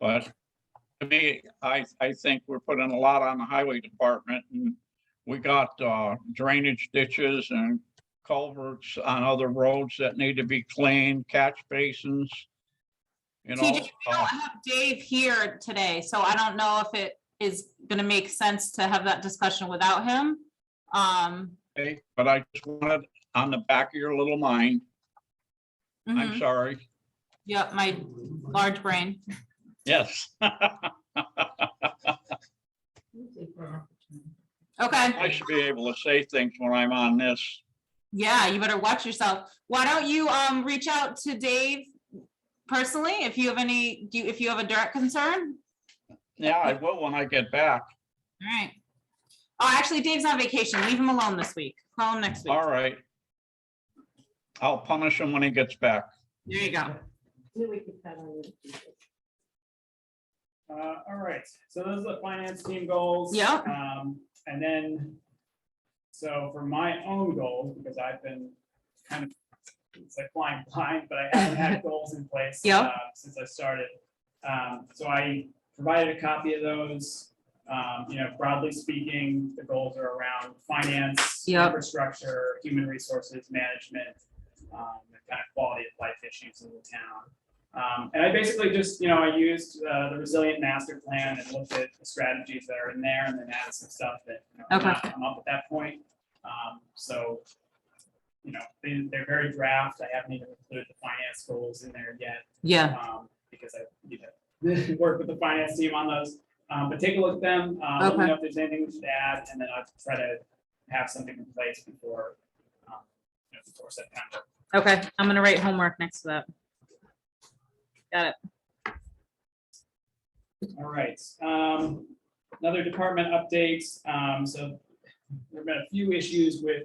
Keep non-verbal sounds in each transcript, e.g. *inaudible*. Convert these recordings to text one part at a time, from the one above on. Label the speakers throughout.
Speaker 1: But to me, I, I think we're putting a lot on the highway department and we got uh, drainage ditches and culverts on other roads that need to be cleaned, catch basins. You know,
Speaker 2: TJ, I
Speaker 1: uh,
Speaker 2: don't have Dave here today, so I don't know if it is gonna make sense to have that discussion without him. Um,
Speaker 1: okay, but I just wanted on the back of your little mind, I'm
Speaker 2: mhm.
Speaker 1: sorry,
Speaker 2: yeah, my large brain.
Speaker 1: yes. *laughs* I
Speaker 2: Okay,
Speaker 1: should be able to say things when I'm on this.
Speaker 2: yeah, you better watch yourself. Why don't you, um, reach out to Dave personally if you have any, do you, if you have a direct concern?
Speaker 1: Yeah, I will when I get back.
Speaker 2: All right. Oh, actually, Dave's on vacation. Leave him alone this week. Call him next week.
Speaker 1: All right. I'll punish him when he gets back.
Speaker 2: There you go.
Speaker 3: Then we could cut on it.
Speaker 4: Uh, all right, so those are the finance team goals.
Speaker 2: Yeah.
Speaker 4: Um, and then, so for my own goals, because I've been kind of, it's like flying *laughs* blind, but I
Speaker 2: *laughs*
Speaker 4: haven't had goals in place.
Speaker 2: Yeah.
Speaker 4: uh, Since I started. Um, so I provided a copy of those. Um, you know, broadly speaking, the goals are around finance,
Speaker 2: Yeah.
Speaker 4: infrastructure, human resources management, um, and kind of quality of life issues in the town. Um, and I basically just, you know, I used uh, the resilient master plan and looked at the strategies that are in there and then added some stuff that you know,
Speaker 2: Okay.
Speaker 4: did not come up at that point. Um, so, you know, they, they're very draft. I haven't even included the finance goals in there yet
Speaker 2: Yeah.
Speaker 4: um, because I, you know, *laughs* work with the finance team on those. Um, but take a look at them, um, let me know if there's anything we should add, and then I'll try to have something in place before, um, you know, before September.
Speaker 2: Okay, I'm gonna write homework next to that. Got it.
Speaker 4: All right, um, another department update, um, so there've been a few issues with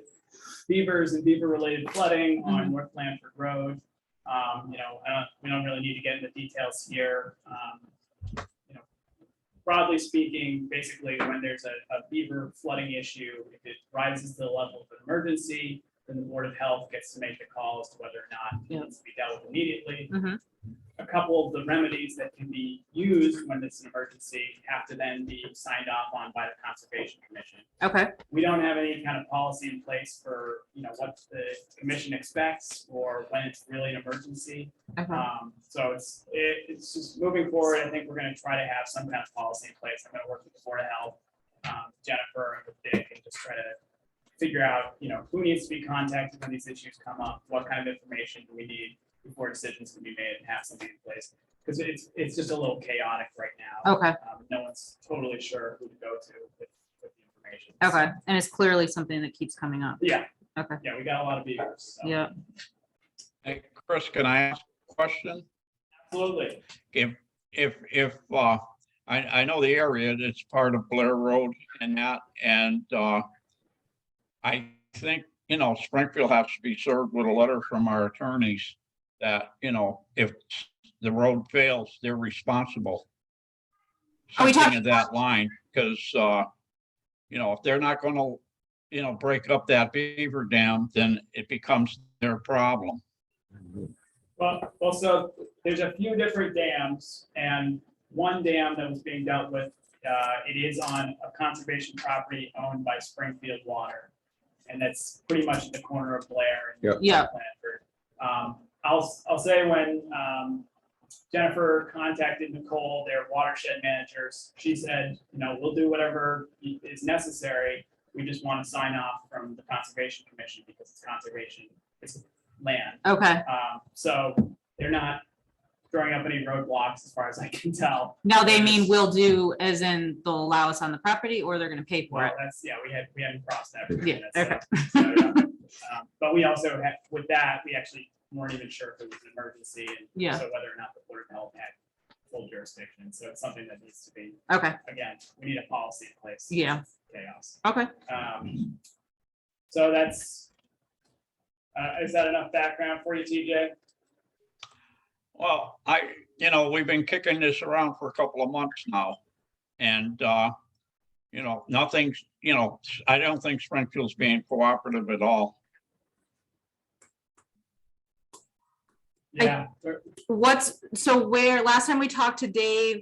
Speaker 4: beavers and beaver-related flooding on North Blanford Road. Um, you know, I don't, we don't really need to get into details here, um, you know, broadly speaking, basically, when there's a, a beaver flooding issue, if it rises to the level of an emergency, then the Board of Health gets to make the call as to whether or not
Speaker 2: Yeah.
Speaker 4: it needs to be dealt with immediately
Speaker 2: Mhm.
Speaker 4: a couple of the remedies that can be used when it's an emergency have to then be signed off on by the Conservation Commission.
Speaker 2: Okay,
Speaker 4: We don't have any kind of policy in place for, you know, what the commission expects or when it's really an emergency.
Speaker 1: Uh,
Speaker 2: okay,
Speaker 4: Um, so it's, it, it's just moving forward. I think we're gonna try to have some kind of policy in place. I'm gonna work with the Board of Health, um, Jennifer and with Dick and just try to figure out, you know, who needs to be contacted when these issues come up, what kind of information do we need before decisions can be made and have something in place. Because it's, it's just a little chaotic right now.
Speaker 2: okay,
Speaker 4: Um, no one's totally sure who to go to with, with the information.
Speaker 2: okay. And it's clearly something that keeps coming up.
Speaker 4: Yeah.
Speaker 2: Okay.
Speaker 4: Yeah, we got a lot of beavers, so.
Speaker 2: Yeah,
Speaker 1: Hey, Chris, can I ask a question?
Speaker 4: Absolutely.
Speaker 1: If, if, if, uh, I, I know the area, it's part of Blair Road and that, and, uh, I think, you know, Springfield has to be served with a letter from our attorneys that, you know, if the road fails, they're responsible.
Speaker 2: Are we
Speaker 1: Something
Speaker 2: talking
Speaker 1: of that line, because, uh, you know, if they're not gonna, you know, break up that beaver dam, then it becomes their problem.
Speaker 4: Well, well, so there's a few different dams and one dam that was being dealt with, uh, it is on a conservation property owned by Springfield Water. And that's pretty much at the corner of Blair and
Speaker 2: yeah,
Speaker 4: Blanford. Um, I'll, I'll say when, um, Jennifer contacted Nicole, their watershed managers, she said, you know, we'll do whatever i- is necessary. We just want to sign off from the Conservation Commission because it's conservation, it's land.
Speaker 2: okay.
Speaker 4: Um, so they're not throwing up any roadblocks as far as I can tell.
Speaker 2: Now they mean will do as in they'll allow us on the property or they're gonna pay for
Speaker 4: Well,
Speaker 2: it.
Speaker 4: that's, yeah, we had, we hadn't crossed that.
Speaker 2: Yeah,
Speaker 4: bridge. That's, uh, so, yeah. Um, But we also had, with that, we actually weren't even sure if it was an emergency and
Speaker 2: Yeah.
Speaker 4: so whether or not the Board of Health had full jurisdiction. So it's something that needs to be,
Speaker 2: Okay,
Speaker 4: again, we need a policy in place.
Speaker 2: Yeah.
Speaker 4: Chaos.
Speaker 2: okay.
Speaker 4: Um, so that's, uh, is that enough background for you, TJ?
Speaker 1: Well, I, you know, we've been kicking this around for a couple of months now. And, uh, you know, nothing's, you know, I don't think Springfield's being cooperative at all.
Speaker 2: I-
Speaker 4: Yeah. we're-
Speaker 2: What's, so where, last time we talked to Dave,